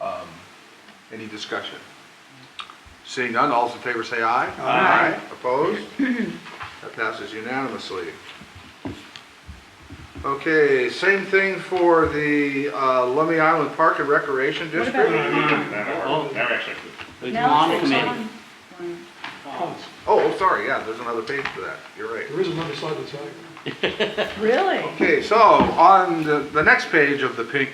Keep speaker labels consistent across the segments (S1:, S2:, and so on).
S1: Um, Any discussion? Seeing none, all those in favor say aye.
S2: Aye.
S1: Opposed? That passes unanimously. Okay, same thing for the uh, Lummi Island Park and Recreation
S3: What
S1: District.
S3: about
S2: Oh.
S4: That that actually,
S2: The
S3: No,
S2: lawn
S3: it's the
S2: committee.
S3: lawn one.
S1: Oh, oh, sorry, yeah, there's another page for that, you're right.
S5: There is another side of the tag.
S3: Really?
S1: Okay, so on the, the next page of the pink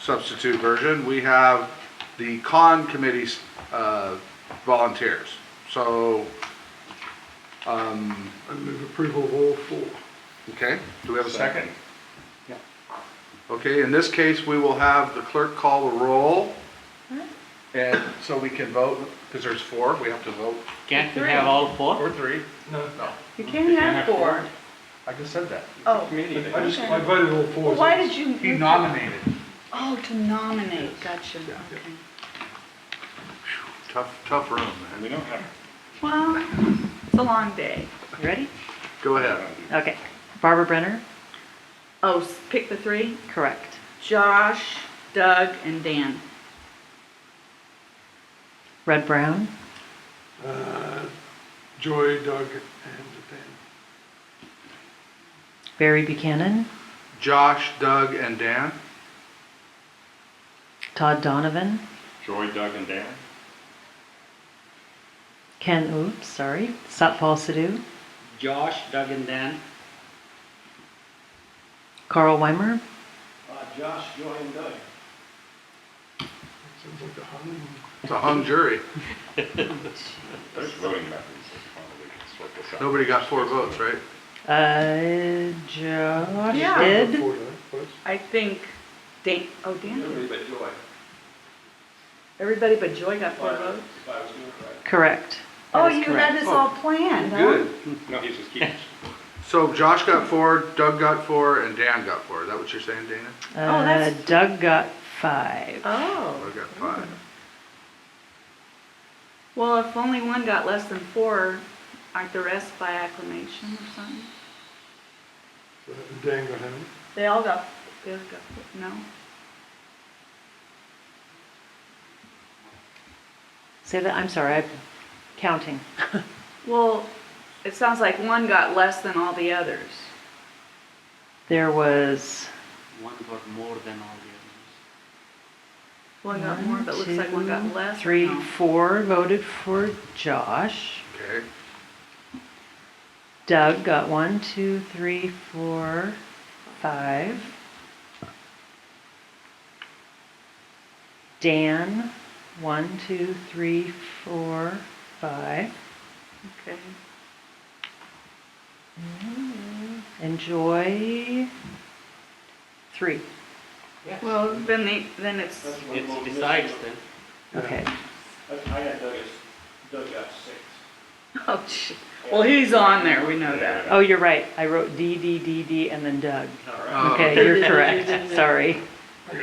S1: substitute version, we have the con committee's, uh, volunteers. So, um,
S5: I move approval of all four.
S1: okay, do we have a second?
S4: Second.
S2: Yeah.
S1: Okay, in this case, we will have the clerk call the roll. And so we can vote, because there's four, we have to vote,
S2: Can't you have all four?
S1: or three.
S5: No,
S1: No,
S3: You can't have four.
S1: I just said that.
S3: Oh,
S5: I just, I voted all four.
S3: well, why did you?
S1: He nominated.
S3: Oh, to nominate, gotcha, okay.
S1: Tough, tough room, man.
S4: and we don't have,
S3: Well, it's a long day.
S6: Ready?
S1: Go ahead.
S6: Okay. Barbara Brenner,
S3: Oh, s- pick the three,
S6: correct.
S3: Josh, Doug, and Dan.
S6: Red Brown,
S5: Uh, Joy, Doug, and Ben.
S6: Barry Buchanan,
S1: Josh, Doug, and Dan?
S6: Todd Donovan,
S4: Joy, Doug, and Dan.
S6: Ken Oops, sorry, Satpal Sidhu,
S2: Josh, Doug and Dan.
S6: Carl Weimer,
S2: Josh, Joy and Doug.
S5: Sounds like a hung.
S1: It's a hung jury.
S4: There's voting methods. that's one we can sort this out.
S1: Nobody got four votes, right?
S6: uh, Josh
S3: Yeah.
S6: did.
S5: Four, though, but it's-
S3: I think Dan, oh, Dan. Everybody but Joy. Everybody but Joy got four votes?
S6: Correct.
S3: Oh,
S6: is
S3: you had
S6: correct.
S3: this all planned, huh?
S4: No, he's just keeping.
S1: So Josh got four, Doug got four, and Dan got four. Is that what you're saying, Dana?
S6: Uh,
S3: Oh, that's-
S6: Doug got five.
S3: Oh,
S1: I got five.
S3: well, if only one got less than four, aren't the rest by acclamation or something?
S5: so that uh, Dan got him.
S3: They all got, they all got, no?
S6: Say that, I'm sorry, I'm counting.
S3: Well, it sounds like one got less than all the others.
S6: There was
S2: One got more than all the
S3: One got more, but it looks like one got less. or
S6: three,
S3: no?
S6: four voted for Josh.
S1: Okay.
S6: Doug got one, two, three, four, five. Dan, one, two, three, four, five.
S3: Okay.
S6: Enjoy, three.
S3: Well, then they, then it's,
S2: others. It decides then.
S6: Okay.
S7: I had Doug as, Doug got six.
S3: oh, sh- well, he's on there, we know that.
S6: Oh, you're right. I wrote D, D, D, D, and then Doug.
S1: Uh,
S6: Okay, you're correct. Sorry.
S1: Okay.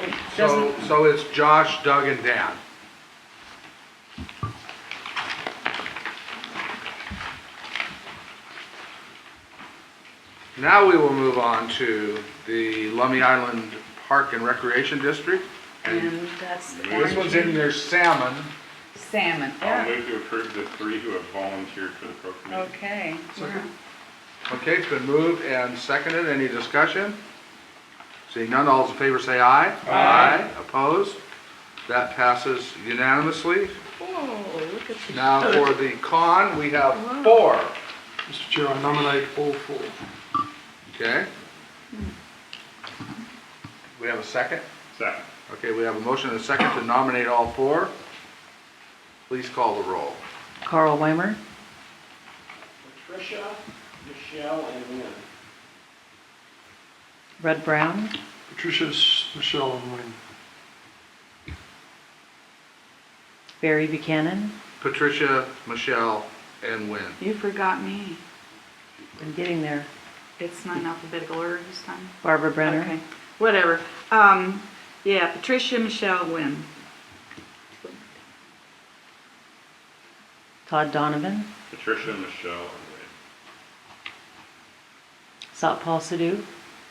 S1: So,
S3: doesn't,
S1: so it's Josh, Doug, and Dan. Now we will move on to the Lummi Island Park and Recreation District. And
S3: and that's.
S1: this one's in their salmon.
S3: Salmon,
S4: I'll
S3: yeah,
S4: move to approve the three who have volunteered for the pro committee.
S3: okay.
S1: Second. Okay, it's been moved and seconded. Any discussion? Seeing none, all those in favor say aye. Aye. Opposed? That passes unanimously.
S3: Oh, look at the.
S1: Now for the con, we have four.
S5: Mr. Chair, I nominate all four.
S1: Okay? We have a second?
S4: Second.
S1: Okay, we have a motion and a second to nominate all four. Please call the roll.
S6: Carl Weimer,
S7: Patricia, Michelle, and Lynn.
S6: Red Brown,
S5: Patricia, S- Michelle, and Wayne.
S6: Barry Buchanan.
S1: Patricia, Michelle, and Wynn.
S3: You forgot me.
S6: I'm getting there.
S3: It's not in alphabetical order this time.
S6: Barbara Brenner,
S3: Okay, whatever. Um, yeah, Patricia, Michelle, Wynn.
S6: Todd Donovan,
S4: Patricia, Michelle, and
S6: Satpal Sidhu,